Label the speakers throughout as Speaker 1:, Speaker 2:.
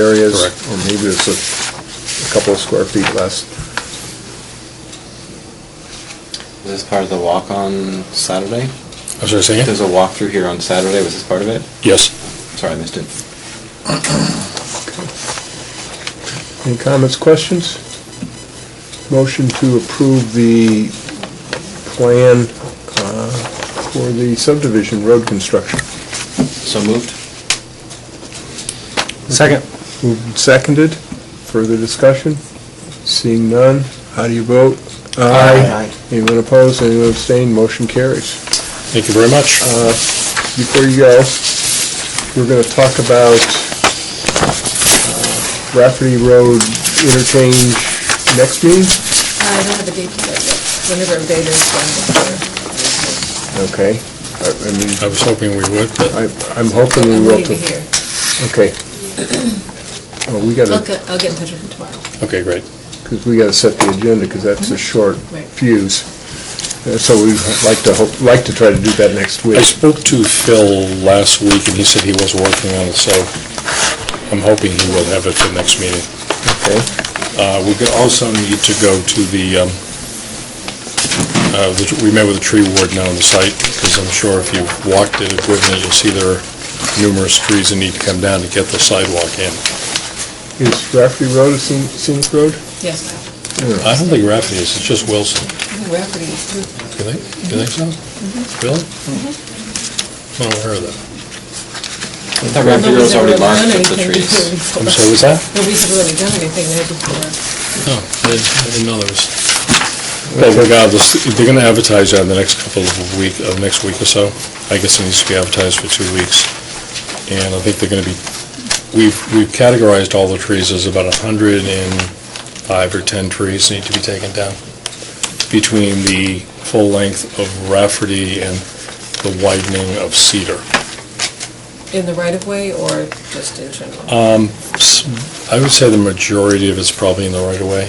Speaker 1: areas.
Speaker 2: Correct.
Speaker 1: Or maybe it's a a couple of square feet less.
Speaker 3: Was this part of the walk on Saturday?
Speaker 2: I was going to say, yeah.
Speaker 3: There's a walk through here on Saturday, was this part of it?
Speaker 2: yes.
Speaker 3: Sorry, I missed it.
Speaker 1: Any comments, questions? Motion to approve the plan uh, for the subdivision road construction.
Speaker 3: So moved?
Speaker 2: Second.
Speaker 1: Moved and seconded. Further discussion? Seeing none, how do you vote?
Speaker 2: Aye.
Speaker 1: Anyone opposed, anyone abstained, motion carries.
Speaker 2: Thank you very much.
Speaker 1: Before you go, we're going to talk about uh, Rafferty Road interchange next meeting?
Speaker 4: I don't have a date for that yet. Whenever a date is, I'm
Speaker 1: Okay. I I mean,
Speaker 2: I was hoping we would, but
Speaker 1: I- I'm hoping we
Speaker 4: here. I'm
Speaker 1: will.
Speaker 4: leaving
Speaker 1: to-
Speaker 4: here.
Speaker 1: Okay. Well, we got
Speaker 4: I'll
Speaker 1: to,
Speaker 4: get, I'll get in touch with him tomorrow.
Speaker 2: okay, great.
Speaker 1: because we got to set the agenda, because that's a short
Speaker 4: Right.
Speaker 1: fuse. Uh, So we'd like to, hope like to try to do that next
Speaker 2: I
Speaker 1: week.
Speaker 2: spoke to Phil last week, and he said he was working on it, so I'm hoping he will have it for next meeting.
Speaker 1: Okay.
Speaker 2: Uh, We could also need to go to the, um, uh, the- we met with the tree ward now on the site, because I'm sure if you've walked it with me, you'll see there are numerous trees that need to come down to get the sidewalk in.
Speaker 1: Is Rafferty Road a scen- scenic road?
Speaker 4: Yes.
Speaker 2: I don't think Rafferty is, it's just Wilson.
Speaker 4: Rafferty is through.
Speaker 2: You think, you think so? Really? I'm not aware of that.
Speaker 3: I thought Rapid Girls already marked up the trees.
Speaker 2: I'm sorry, was that?
Speaker 4: Nobody's really done anything there before.
Speaker 2: No, I didn't Oh, I didn't know there was. But regardless, they're gonna advertise that in the next couple of week, of next week or so. I guess it needs to be advertised for two weeks. And I think they're gonna be, we've, we've categorized all the trees, there's about a hundred and five or ten trees need to be taken down between the full length of Rafferty and the widening of Cedar.
Speaker 4: In the right of way or just in general?
Speaker 2: I would say the majority of it's probably in the right of way.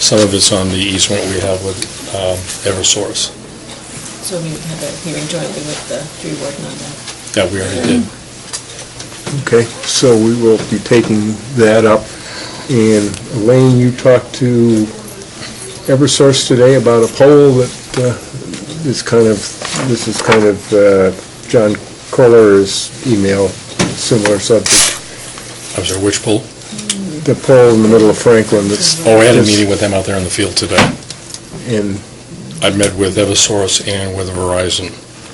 Speaker 2: Some of it's on the easement we have with um, Eversource.
Speaker 4: So we have a hearing jointly with the tree warden on that.
Speaker 2: Yeah, we already did.
Speaker 1: Okay, so we will be taking that up. And Elaine, you talked to Eversource today about a poll that uh, is kind of, this is kind of uh, John Coller's email, similar subject.
Speaker 2: I'm sorry, which pool?
Speaker 1: The poll in the middle of Franklin that's...
Speaker 2: Oh, I had a meeting with them out there in the field today.
Speaker 1: And
Speaker 2: I met with Eversource and with Verizon.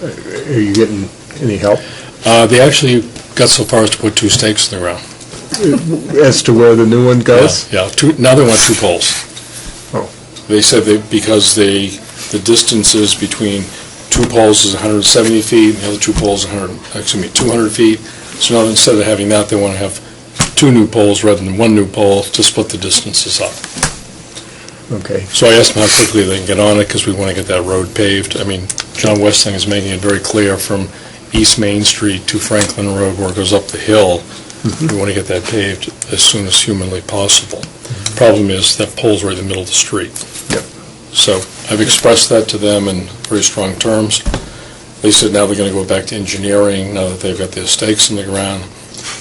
Speaker 1: are you getting any help
Speaker 2: Uh, They actually got so far as to put two stakes in the ground.
Speaker 1: as to where the new one goes?
Speaker 2: Yeah, yeah, two, now they want two poles.
Speaker 1: Oh.
Speaker 2: They said they, because they, the distances between two poles is 170 feet, and the other two poles is 100, excuse me, 200 feet. So now instead of having that, they want to have two new poles rather than one new pole to split the distances up.
Speaker 1: Okay,
Speaker 2: So I asked them how quickly they can get on it, because we want to get that road paved. I mean, John Westling is making it very clear from East Main Street to Franklin Road where it goes up the hill.
Speaker 1: Mm-hmm.
Speaker 2: We want to get that paved as soon as humanly possible. Problem is, that pole's right in the middle of the street.
Speaker 1: Yep.
Speaker 2: So I've expressed that to them in very strong terms. They said now they're going to go back to engineering, now that they've got their stakes in the ground,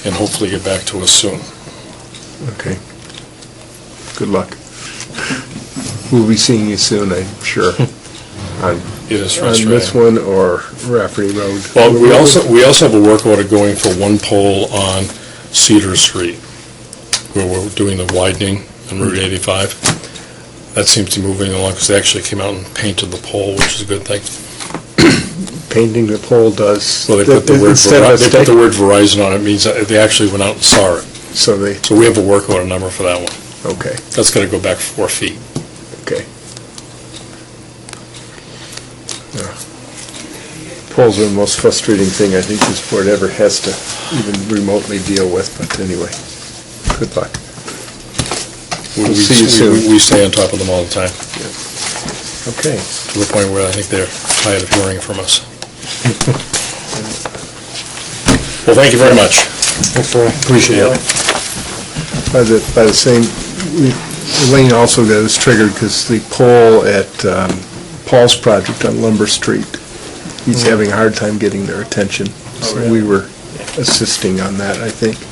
Speaker 2: and hopefully get back to us soon.
Speaker 1: okay. Good luck. We'll be seeing you soon, I'm sure, on
Speaker 2: It is
Speaker 1: on
Speaker 2: frustrating.
Speaker 1: this one or Rafferty Road.
Speaker 2: Well, we also, we also have a work order going for one pole on Cedar Street, where we're doing the widening on
Speaker 1: Mm-hmm.
Speaker 2: Route 85. That seems to be moving along, because they actually came out and painted the pole, which is a good thing.
Speaker 1: Painting the pole does.
Speaker 2: Well, they put the word,
Speaker 1: Instead of a
Speaker 2: Veri- they put the
Speaker 1: stake,
Speaker 2: word Verizon on it, means that they actually went out and saw it.
Speaker 1: So they,
Speaker 2: So we have a work order number for that one.
Speaker 1: okay,
Speaker 2: That's got to go back four feet.
Speaker 1: okay. Yeah. Poles are the most frustrating thing I think this board ever has to even remotely deal with, but anyway, good luck.
Speaker 2: We-
Speaker 1: We'll
Speaker 2: we-
Speaker 1: see you
Speaker 2: we-
Speaker 1: soon.
Speaker 2: We stay on top of them all the time,
Speaker 1: Okay.
Speaker 2: to the point where I think they're tired of hearing from us. Well, thank you very much. Appreciate it.
Speaker 1: By the, by the same, we- Elaine also got us triggered because the pole at um, Paul's project on Lumber Street, he's having a hard time getting their attention. So we were assisting on that, I think.